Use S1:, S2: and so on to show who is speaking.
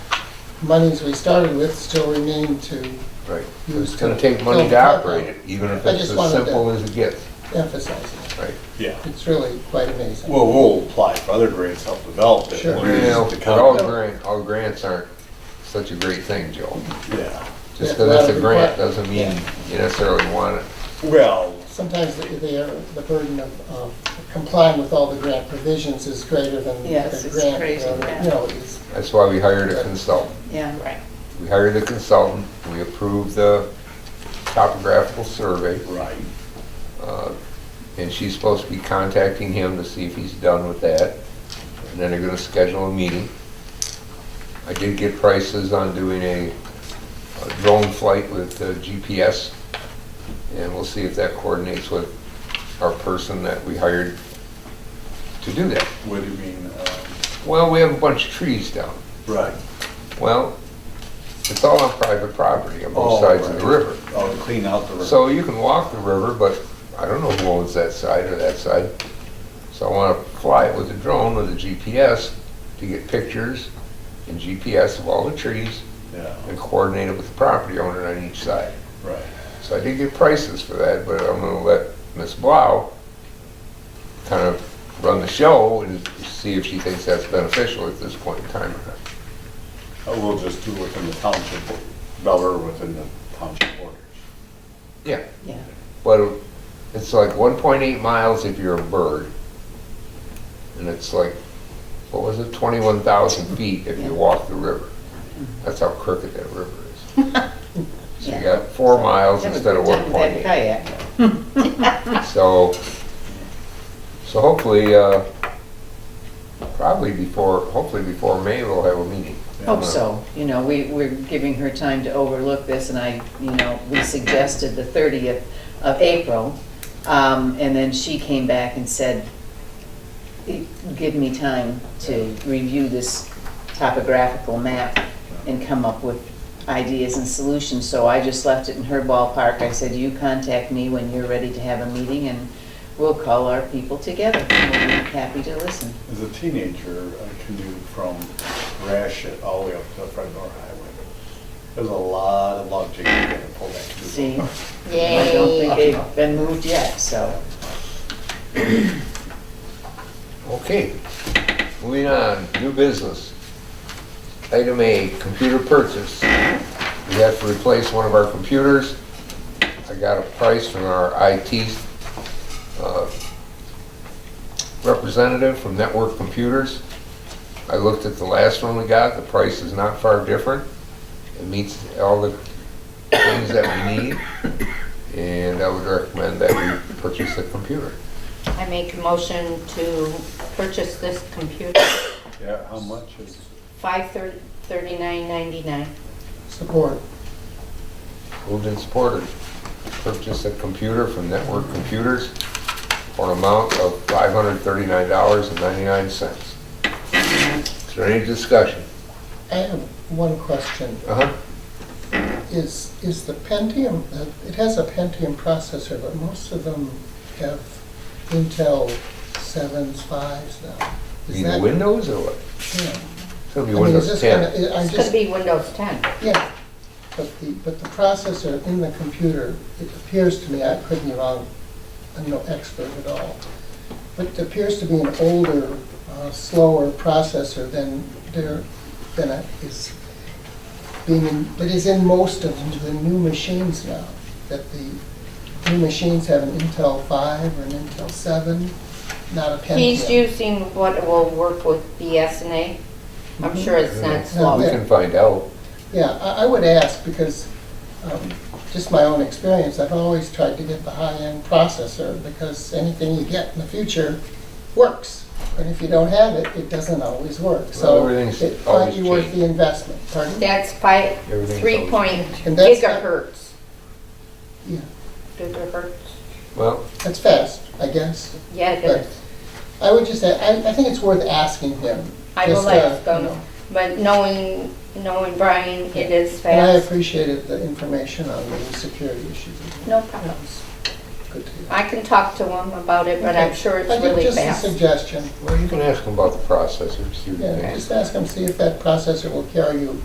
S1: monies we started with still remain to
S2: Right.
S1: use
S2: It's
S1: to
S2: gonna take money to
S1: help
S2: operate it, Hmm. even if
S1: I
S2: it's
S1: just
S2: as
S1: wanted to-
S2: simple as it gets,
S1: emphasize it.
S2: right?
S3: Yeah,
S1: It's really quite amazing.
S3: well, we'll apply for other grants, help develop it.
S1: Sure.
S3: We'll use
S2: Well,
S3: the
S2: but all
S3: county.
S2: grant, all grants aren't such a great thing, Joe.
S3: Yeah,
S2: Just
S1: Yeah, well,
S2: because it's a
S1: we want-
S2: grant doesn't mean you necessarily want it.
S3: well,
S1: Sometimes they- they are, the burden of of complying with all the grant provisions is greater than the grant.
S4: Yes, it's crazy,
S1: uh,
S4: yeah.
S1: You know, is
S2: That's why we hired a consultant.
S4: Yeah, right.
S2: We hired a consultant, we approved the topographical survey,
S3: right,
S2: uh, and she's supposed to be contacting him to see if he's done with that. And then they're gonna schedule a meeting. I did get prices on doing a a drone flight with uh, GPS, and we'll see if that coordinates with our person that we hired to do that.
S3: what do you mean, um,
S2: Well, we have a bunch of trees down.
S3: right,
S2: Well, it's all on private property on both
S3: Oh,
S2: sides of the
S3: right.
S2: river.
S3: oh, clean out the river.
S2: So you can walk the river, but I don't know who owns that side or that side. So I want to fly it with a drone with a GPS to get pictures and GPS of all the trees
S3: Yeah,
S2: and coordinate it with the property owner on each side.
S3: right,
S2: So I did get prices for that, but I'm gonna let Ms. Blau kind of run the show and see if she thinks that's beneficial at this point in time or not.
S3: Uh, we'll just do within the township, or- Bel Air within the township borders.
S2: Yeah.
S4: Yeah.
S2: But it's like one point eight miles if you're a bird. And it's like, what was it, twenty-one thousand feet if you
S4: Yeah.
S2: walk the river. That's how crooked that river is. So you
S4: Yeah.
S2: got four miles
S4: Have a
S2: instead of
S4: good time
S2: one point
S4: with that
S2: eight.
S4: kayak.
S2: So, so hopefully, uh, probably before, hopefully before May, we'll have a meeting.
S4: Hope so, you know, we, we're giving her time to overlook this, and I, you know, we suggested the thirtieth of April, um, and then she came back and said, "I- give me time to review this topographical map and come up with ideas and solutions, so I just left it in her ballpark, I said, you contact me when you're ready to have a meeting, and we'll call our people together, and we'll be happy to listen.
S3: As a teenager, I canoed from Gratiot all the way up to the Fred Miller Highway. There's a lot of log jig you gotta pull that canoe.
S4: See? I don't think they've been moved yet, so.
S2: Okay, moving on, new business. Item A, computer purchase. We have to replace one of our computers. I got a price from our IT uh, representative from Network Computers. I looked at the last one we got, the price is not far different. It meets all the things that we need, and I would recommend that we purchase a computer.
S5: I make a motion to purchase this computer,
S3: Yeah, how much is,
S5: five thirty-nine ninety-nine.
S1: support.
S2: Moved and supported. Purchase a computer from Network Computers for an amount of $539.99. Is there any discussion?
S1: I have one question.
S2: Uh-huh.
S1: Is, is the Pentium, uh, it has a Pentium processor, but most of them have Intel sevens, fives now. Is
S2: Either
S1: that-
S2: Windows or what?
S1: yeah.
S2: It's gonna
S1: I
S2: be
S1: mean, is
S2: Windows
S1: this gonna-
S2: 10.
S1: I
S5: It's
S1: just,
S5: gonna be Windows ten.
S1: yeah, but the, but the processor in the computer, it appears to me, I could be wrong, I'm no expert at all, but it appears to be an older, uh, slower processor than there, than it is being, in- but is in most of the new machines now, that the new machines have an Intel five or an Intel seven, not a Pentium.
S5: He's using what will work with BSNA.
S1: Mm-hmm.
S5: I'm sure it's not
S2: Well, We
S5: slow.
S2: can find out.
S1: Yeah, I, I would ask because, um, just my own experience, I've always tried to get the high-end processor because anything you get in the future works. And if you don't have it, it doesn't always work,
S2: Well,
S1: so
S2: everything's
S1: it might
S2: always
S1: be worth
S2: changing.
S1: the investment, pardon?
S5: That's five,
S2: Everything's
S5: three point
S1: And that's not-
S5: gigahertz.
S1: Yeah.
S5: Gigahertz,
S2: Well,
S1: That's fast, I guess.
S5: yeah, it is.
S1: I would just say, I, I think it's worth asking him.
S5: I will
S1: just, uh,
S5: ask
S1: you know.
S5: him, but knowing, knowing Brian, it is
S1: And I
S5: fast.
S1: appreciated the information on the security issues.
S5: No problem.
S1: Good to hear.
S5: I can talk to him about it, but I'm sure it's
S1: I think
S5: really fast.
S1: Just a suggestion,
S2: well, you can ask them about the processors. see what they
S1: yeah,
S2: think.
S1: just ask him, see if that processor will carry you